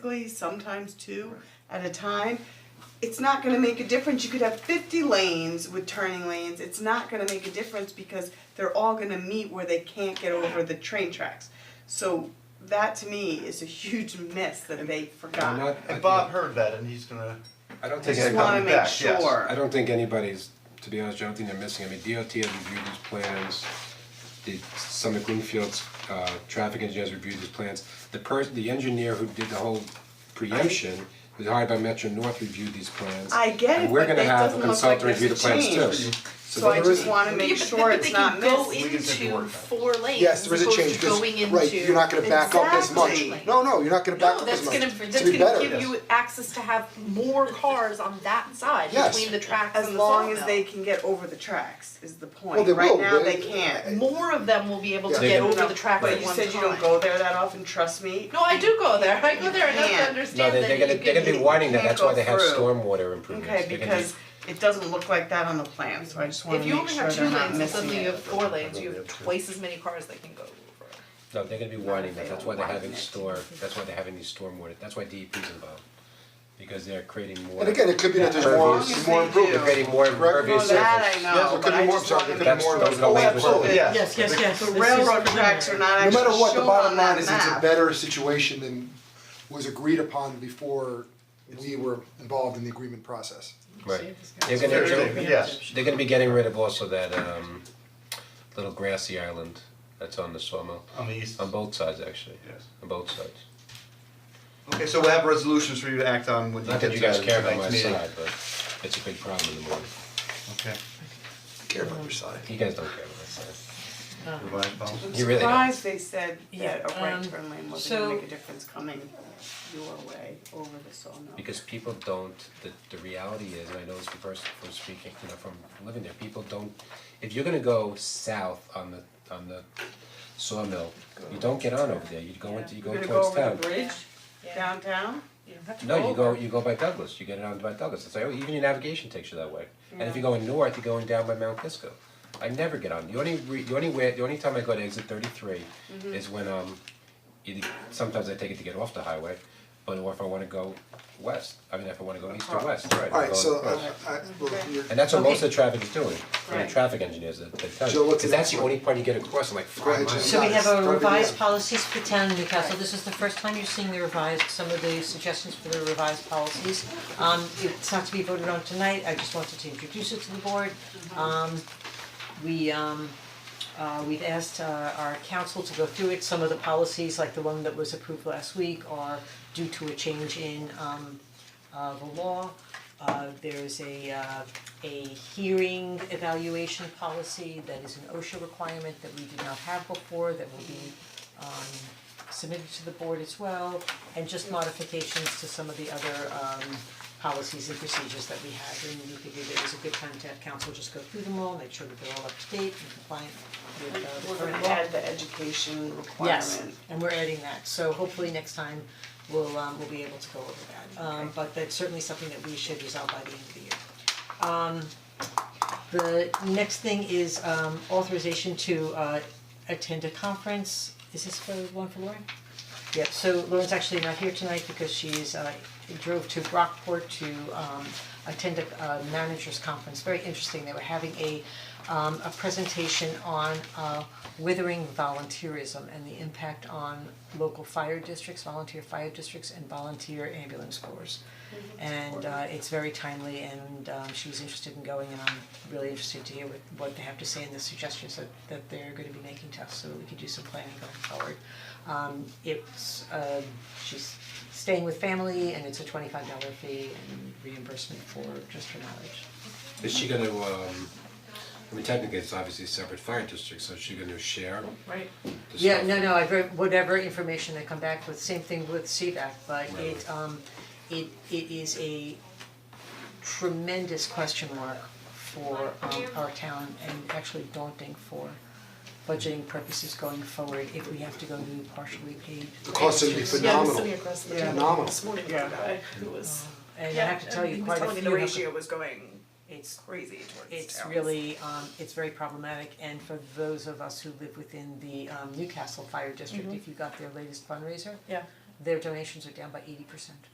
weekly, sometimes two at a time. It's not gonna make a difference, you could have fifty lanes with turning lanes, it's not gonna make a difference because they're all gonna meet where they can't get over the train tracks. So that to me is a huge miss that they I'm forgot. not, I- And Bob heard that and he's gonna, I don't Take think, it Just They're wanna coming make back, yes. sure. I don't think anybody's, to be honest, I don't think they're missing, I mean, DOT has reviewed these plans. The Summit Greenfield's uh traffic engineers reviewed these plans, the person, the engineer who did the whole preemption, who's hired by Metro North reviewed these plans. I get it, And we're but gonna that have doesn't a look consultant like review the there's plans a too. change. So So I there just isn't- wanna make sure it's not missed. work on it. Yes, there is a change, because, because, right, you're not gonna back up as much. Exactly. No, no, you're not gonna back No, up as that's much. gonna, It's that's be gonna better. give you access to have more cars on that side, Yes. between the tracks As and the sawmill. long as they can get over the tracks is the Well, point, they right will, now but- they can't. More of them will be able to Yeah. get They- over the tracks But at you one said you don't time. go there that often, trust me. No, I do go there, I go there enough Yeah. to No, understand No, that they're you gonna, they're gonna be can, widening that, can't that's why go they have through. stormwater improvements, Okay, They're gonna do- because it doesn't look like that on the plan, so I just wanna if you make only sure have two they're not lanes, and missing suddenly you it. have four lanes, you have twice as many cars that can go over. No, they're gonna be widening that, that's why they're having store, that's why they're having these stormwater, that's why DEP's involved. Because they're creating more. And again, it could be that there's more, As long as more they They're improvement. do. creating more Correct. impervious No, that I surface. know, it could but be I just more wanna obstructive, make it could That's be more those are the Oh, obstructive. waivers. Absolutely, yes. Yes, yes, yes. The This is railroad familiar. tracks are not No actually shown on that map. matter what, the bottom line is it's a better situation than was agreed upon before we were involved in the agreement process. Right, they're gonna, they're- they're gonna be getting rid of also that um little grassy island that's on the sawmill, on the east. on both sides actually, Yes. on both sides. Okay, so we'll have resolutions for you to act on when you Not get to that you tonight's guys meeting. care about my side, but it's a big problem in the morning, Okay. Care about your side. you guys don't care about my side, You're right, Bob. you really don't. Surprised they said that a Yeah, right um, turn lane wasn't gonna so- make a difference coming your way over the sawmill. Because people don't, the the reality is, and I know this from first from speaking, you know, from living there, people don't, if you're gonna go south on the on the sawmill, you don't get on over there, you go into, you go towards town. You're gonna go over the bridge downtown? No, you go, you go by Douglas, you get it on by Douglas, it's like, oh, even your navigation takes you that way. And if you're going north, you're going down by Mount Kisco. I never get on, the only re, the only way, the only time I go to exit thirty-three Mm-hmm. is when, um, either, sometimes I take it to get off the highway, but or if I wanna go west, I mean, if I wanna go east or west, right, I'm Alright, going so uh, across. I I well, you're And that's what most of the traffic is doing, for the Right. traffic engineers, that they tell Jill, you, what's cause the that's the next one? only part you get across, I'm like Go five ahead, miles. Jill. So we have Nice. our revised Perfect. policies for town and Newcastle, this is the first time you're seeing the revised, some of the suggestions for the revised policies. Um, it's not to be voted on tonight, I just wanted to introduce it to the board. Um, we, um, uh, we've asked uh, our council to go through it, some of the policies, like the one that was approved last week, are due to a change in, um, uh, the law. Uh, there's a, uh, a hearing evaluation policy that is an OSHA requirement that we did not have before, that will be, um, submitted to the board as well, and just modifications to some of the other, um, policies and procedures that we have, and we figured it was a good time to have council just go through them all, make sure that they're all up to date and compliant with, uh, We're the current law. gonna add the education Yes, requirement. and we're adding that, so hopefully next time we'll um we'll be able to go over that, um but that's certainly something that we should resolve by the end of the year. Um the next thing is um authorization to uh attend a conference, is this for one for Lauren? Yep, so Lauren's actually not here tonight because she's uh drove to Brockport to um attend a uh managers conference, very interesting, they were having a um a presentation on uh withering volunteerism and the impact on local fire districts, volunteer fire districts and volunteer ambulance corps. And uh it's very timely and um she was interested in going and I'm really interested to hear what what they have to say and the suggestions that that they're gonna be making to us so that we can do some planning going forward. Um it's um she's staying with family and it's a twenty five dollar fee and reimbursement for just her knowledge. Is she gonna, um, I mean technically it's obviously a separate fire district, so is she gonna share Right. the stuff? Yeah, no, no, I've read whatever information they come back with, same thing with CVAC, but it Right. um it it is a tremendous question mark for um our town and actually daunting for budgeting purposes going forward if we have to go to partially paid. The cost is gonna be Yeah, I was phenomenal. sitting across the Yeah. table Phenomenal. this morning with Yeah. a guy who was, And I yeah, have to tell and he you, was quite a telling me few the have ratio was going it's crazy towards it's towns. really um it's very problematic and for Mm-hmm. those of us who live within the um Newcastle Fire District, if you got their latest fundraiser, Yeah. their donations are down by eighty percent.